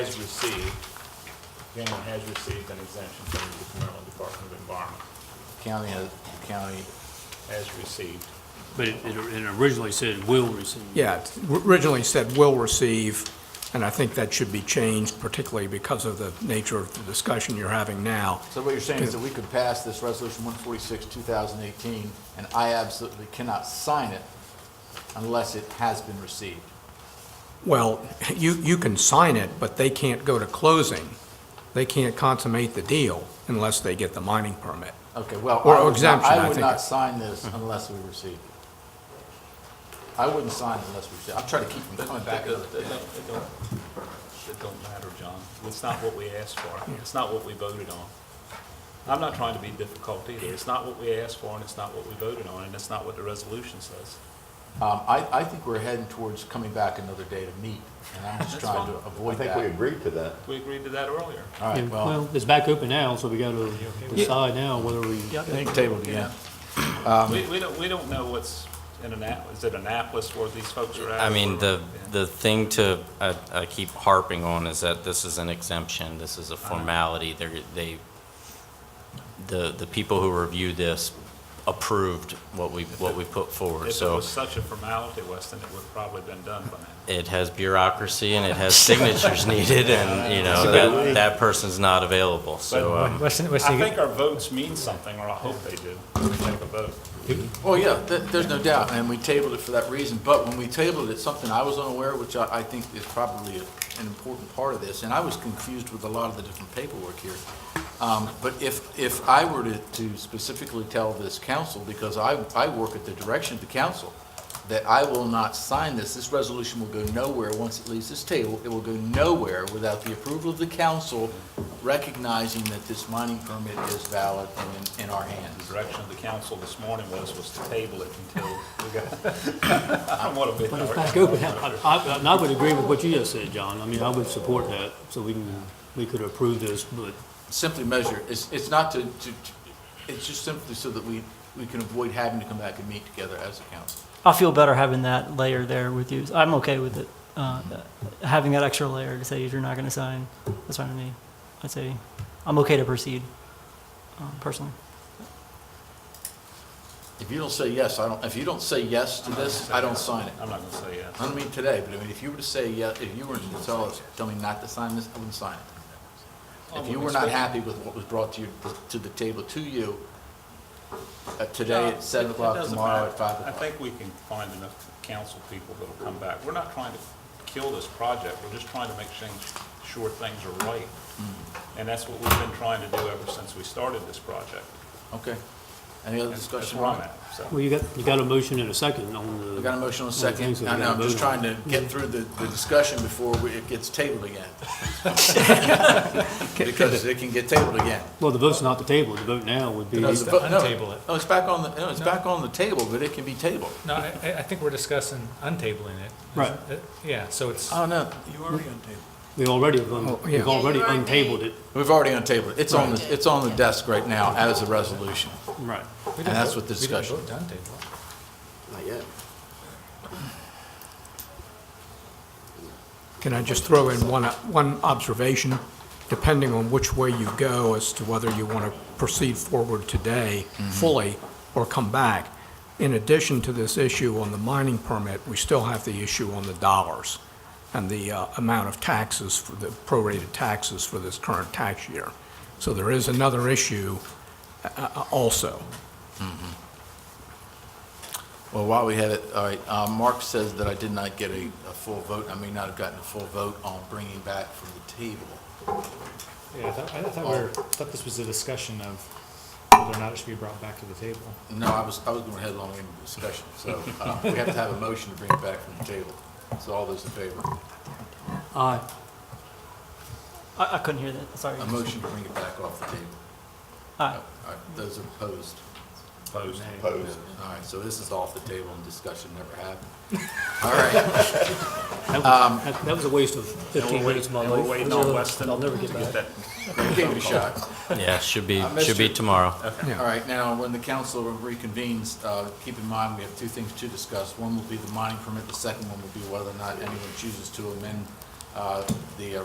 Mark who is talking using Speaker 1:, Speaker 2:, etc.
Speaker 1: has received, Cameron has received an exemption from the Maryland Department of Environment,
Speaker 2: County, has- county,
Speaker 1: has received.
Speaker 3: But it, it it originally said will receive.
Speaker 4: Yeah, it originally said will receive, and I think that should be changed, particularly because of the nature of the discussion you're having now.
Speaker 2: so what you're saying is that we could pass this resolution one forty-six, two thousand eighteen, and I absolutely cannot sign it unless it has been received.
Speaker 4: Well, you, you can sign it, but they can't go to closing. They can't consummate the deal unless they get the mining permit.
Speaker 2: Okay, well,
Speaker 4: Or
Speaker 2: I would not,
Speaker 4: exemption, I
Speaker 2: I would
Speaker 4: think.
Speaker 2: not sign this unless we received it. I wouldn't sign it unless we received it. I'm trying to keep from coming back.
Speaker 1: It
Speaker 2: another
Speaker 1: don't,
Speaker 2: day.
Speaker 1: it don't- it don't matter, John. It's not what we asked for. It's not what we voted on. I'm not trying to be difficult either. It's not what we asked for, and it's not what we voted on, and it's not what the resolution says.
Speaker 2: Um, I, I think we're heading towards coming back another day to meet, and I'm just
Speaker 1: That's
Speaker 2: trying to
Speaker 1: fine.
Speaker 5: I
Speaker 2: avoid
Speaker 5: think we
Speaker 2: that.
Speaker 5: agreed to that.
Speaker 1: We agreed to that earlier.
Speaker 2: All right, well,
Speaker 3: Well, it's back open now, so we gotta decide now whether we.
Speaker 2: I think tabled again.
Speaker 6: Um,
Speaker 1: We, we don't, we don't know what's in Annapolis, is it Annapolis where these folks are at?
Speaker 6: I mean, the,
Speaker 1: Yeah.
Speaker 6: the thing to, I, I keep harping on is that this is an exemption, this is a formality, they're, they, the, the people who reviewed this approved what we, what we put forward,
Speaker 1: If it
Speaker 6: so
Speaker 1: was such a formality, Weston, it would probably been done by now.
Speaker 6: it has bureaucracy and it has signatures needed, and, you know, that, that person's not available, so, um,
Speaker 1: I think our votes mean something, or I hope they do, when we take a
Speaker 2: Well,
Speaker 1: vote.
Speaker 2: Oh, yeah, th- there's no doubt, and we tabled it for that reason, but when we tabled it, something I was unaware, which I, I think is probably a- an important part of this, and I was confused with a lot of the different paperwork here. Um, but if, if I were to, to specifically tell this council, because I, I work at the direction of the council, that I will not sign this, this resolution will go nowhere once it leaves this table, it will go nowhere without the approval of the council recognizing that this mining permit is valid and in, in our hands.
Speaker 1: The direction of the council this morning was, was to table it until we got, I don't want to be.
Speaker 3: But it's back open now. I- I, and I would agree with what you just said, John. I mean, I would support that, so we can, we could approve this, but
Speaker 2: simply measure, it's, it's not to, to, to- it's just simply so that we, we can avoid having to come back and meet together as a council.
Speaker 7: I feel better having that layer there with you. I'm okay with it. Uh, having that extra layer to say if you're not going to sign, that's fine with me. I'd say I'm okay to proceed um, personally.
Speaker 2: If you don't say yes, I don't, if you don't say yes to this, I don't sign it.
Speaker 1: I'm not going to say yes.
Speaker 2: I don't mean today, but I mean, if you were to say yes, if you were to tell us, tell me not to sign this, I wouldn't sign it. If you were not happy with what was brought to you, to the table to you, uh, today
Speaker 1: No,
Speaker 2: at seven
Speaker 1: it- it
Speaker 2: o'clock,
Speaker 1: doesn't
Speaker 2: tomorrow
Speaker 1: matter.
Speaker 2: at five
Speaker 1: I
Speaker 2: o'clock.
Speaker 1: think we can find enough council people that'll come back. We're not trying to kill this project, we're just trying to make things- sure things are right.
Speaker 2: Mm-hmm.
Speaker 1: And that's what we've been trying to do ever since we started this project.
Speaker 2: Okay. Any other
Speaker 1: That's-
Speaker 2: discussion?
Speaker 1: That's where I'm at, so.
Speaker 3: Well, you got, you got a motion and a second on the.
Speaker 2: We got a motion on
Speaker 3: on the
Speaker 2: second.
Speaker 3: things that
Speaker 2: I
Speaker 3: we
Speaker 2: know,
Speaker 3: gotta
Speaker 2: I'm just
Speaker 3: vote on.
Speaker 2: trying to get through the, the discussion before we- it gets tabled again. Because it can get tabled again.
Speaker 3: Well, the vote's not the table. The vote now would be.
Speaker 2: Because the vo- no,
Speaker 8: untable it.
Speaker 2: No, it's back on the, no, it's back on the table, but it can be tabled.
Speaker 8: No, I, I I think we're discussing untabling it.
Speaker 3: Right.
Speaker 8: Uh, Yeah, so it's,
Speaker 2: I don't know.
Speaker 3: We already, have un-
Speaker 4: Oh, yeah.
Speaker 3: we've already untabled it.
Speaker 2: We've already untabled it. It's on, the it's on the desk right now as a resolution.
Speaker 3: Right.
Speaker 8: we didn't
Speaker 2: that's
Speaker 8: vote-
Speaker 2: what the discussion-
Speaker 8: We didn't vote to untable it.
Speaker 5: Not yet.
Speaker 4: Can I just throw in one, one observation? Depending on which way you go as to whether you want to proceed forward today fully or come back, in addition to this issue on the mining permit, we still have the issue on the dollars and the uh, amount of taxes for the prorated taxes for this current tax year. So there is another issue uh, uh, also.
Speaker 2: Well, while we have it, all right, uh, Mark says that I did not get a, a full vote. I may not have gotten a full vote on bringing back from the table.
Speaker 8: Yeah, I thought, I thought we were, thought this was a discussion of whether or not it should be brought back to the table.
Speaker 2: No, I was, I was going headlong into discussion, so uh, we have to have a motion to bring it back from the table. So all those in favor,
Speaker 3: Aye.
Speaker 7: I, I couldn't hear that. Sorry.
Speaker 2: a motion to bring it back off the table.
Speaker 7: Aye.
Speaker 2: All right, those are opposed.
Speaker 1: Opposed.
Speaker 5: Opposed.
Speaker 2: All right, so this is off the table and discussion never happened. All right,
Speaker 3: That
Speaker 2: Um,
Speaker 3: was, that- that was a waste of fifteen
Speaker 1: And we're
Speaker 3: minutes of my
Speaker 1: waiting- and
Speaker 3: life.
Speaker 1: we're waiting
Speaker 3: I'll
Speaker 1: on
Speaker 3: never-
Speaker 1: Weston
Speaker 3: I'll never get
Speaker 1: to
Speaker 3: back.
Speaker 1: that
Speaker 2: gave it a shot.
Speaker 6: yeah, should be,
Speaker 2: I missed
Speaker 6: should be
Speaker 2: it.
Speaker 6: tomorrow.
Speaker 2: All right, now, when the council reconvenes, uh, keep in mind, we have two things to discuss. One will be the mining permit, the second one will be whether or not anyone chooses to amend uh, the uh,